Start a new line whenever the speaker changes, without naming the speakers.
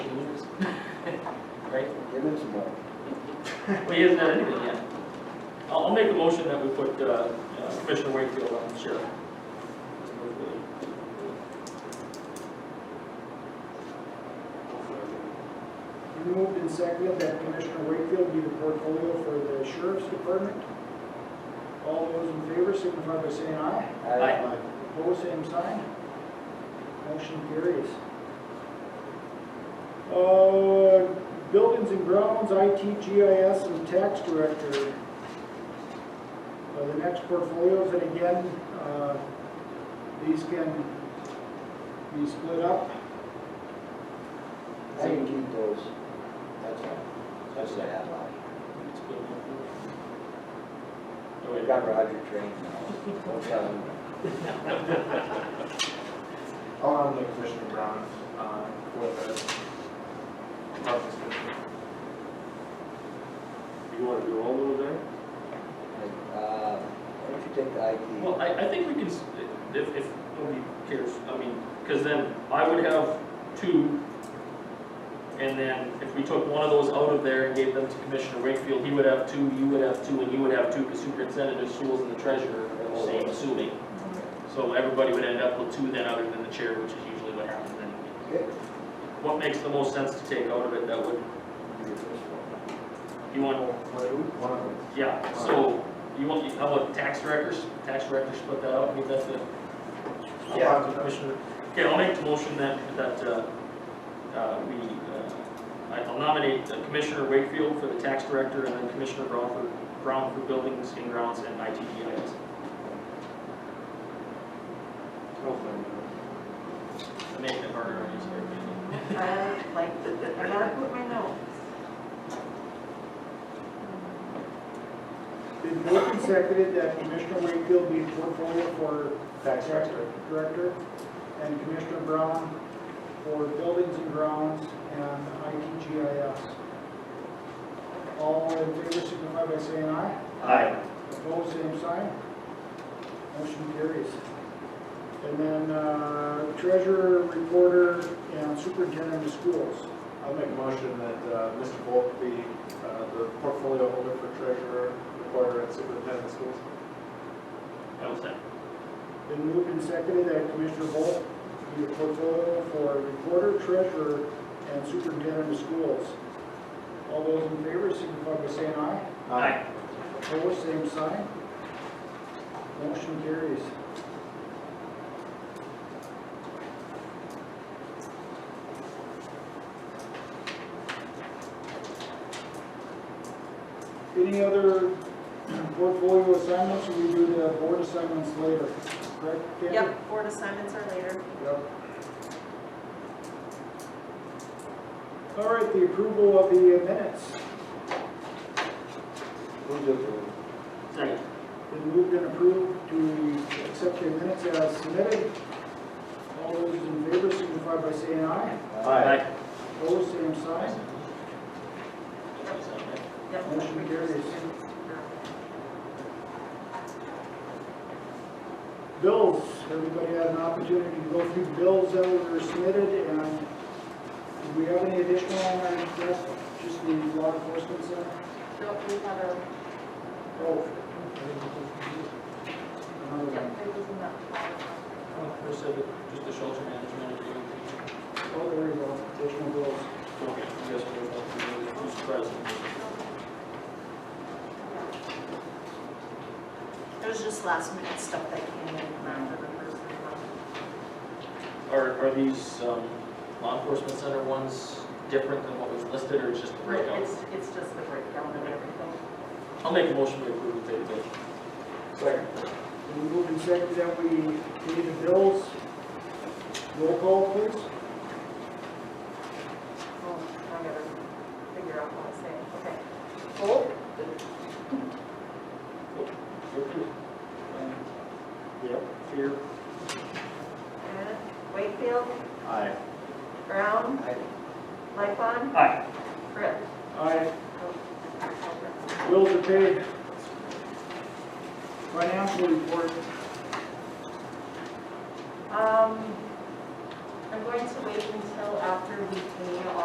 minutes ago.
Well, he hasn't done anything yet. I'll, I'll make a motion that we put, uh, uh, Commissioner Wakefield on the chair.
You moved and seconded that Commissioner Wakefield be the portfolio for the sheriff's department. All those in favor signify by saying aye.
Aye.
Opposed, same sign. Motion carries. Uh, Buildings and grounds, IT, GIS, and tax director. Uh, The next portfolios, and again, uh, these can be split up.
I can keep those. That's all. That's the headline.
Oh,
We've
wait.
got Roger trained now. Don't tell him.
I'll nominate Commissioner Brown uh, for the Health Commission.
You wanna do all those there?
Uh, Why don't you take the IT?
Well, I, I think we can, s- if, if nobody cares, I mean, because then I would have two, and then if we took one of those out of there and gave them to Commissioner Wakefield, he would have two, you would have two, and you would have two, because superintendent of schools and the treasurer are the same, assuming. So everybody would end up with two then, other than the chair, which is usually what happens then.
Okay.
What makes the most sense to take out of it that would, you want,
One of them.
yeah, so, you want, how about tax directors? Tax directors, put that out, I think that's the
Yeah.
Yeah, Commissioner. Okay, I'll make the motion that, that, uh, uh, we, uh, I- I'll nominate uh, Commissioner Wakefield for the tax director and then Commissioner Brown for, Brown for buildings and grounds and ITDIS. I'm making it harder on you, sorry.
I like, I gotta put my note.
Been moved and seconded that Commissioner Wakefield be portfolio for
Tax
Tax
director.
Director, and Commissioner Brown for Buildings and Grounds and ITGIS. All in favor signify by saying aye.
Aye.
Opposed, same sign. Motion carries. And then uh, treasurer, reporter, and superintendent of schools.
I'll make a motion that uh, Mr. Volk be uh, the portfolio holder for treasurer, recorder, and superintendent of schools.
I will second.
Been moved and seconded that Commissioner Bolt be the portfolio for recorder, treasurer, and superintendent of schools. All those in favor signify by saying aye. Opposed, same sign. Motion carries. Any other portfolio assignments, or we do the board assignments later, correct? Kathy?
Yep, board assignments are later.
Yep. All right, the approval of the minutes.
Who's it for?
Second.
Been moved and approved to accept the minutes as submitted. All those in favor signify by saying aye.
Aye.
Opposed, same sign.
Yep.
Motion carries. Bills, everybody had an opportunity to go through bills that were submitted, and do we have any additional on our desk? Just the law enforcement center?
Nope, we have a,
Oh. Another one.
yep, it was in that.
First, uh, just the shelter management agreement.
Oh, there you go, additional bills.
Okay, you guys will vote for who's present.
It was just last minute stuff that came in after the first round.
Are, are these, um, law enforcement center ones different than what was listed, or just the breakouts?
It's, it's just the breakdown of everything.
I'll make a motion to approve the table.
Second.
We move in second that we pay the bills. Roll call, please.
Oh, I'm gonna figure out what I'm saying, okay. Holt?
Yep. Here.
Bennett, Wakefield?
Aye.
Brown?
Aye.
Lightfon?
Aye.
Britt?
Aye.
Oh.
Bills are paid. Financial report.
Um, I'm going to wait until after we pay all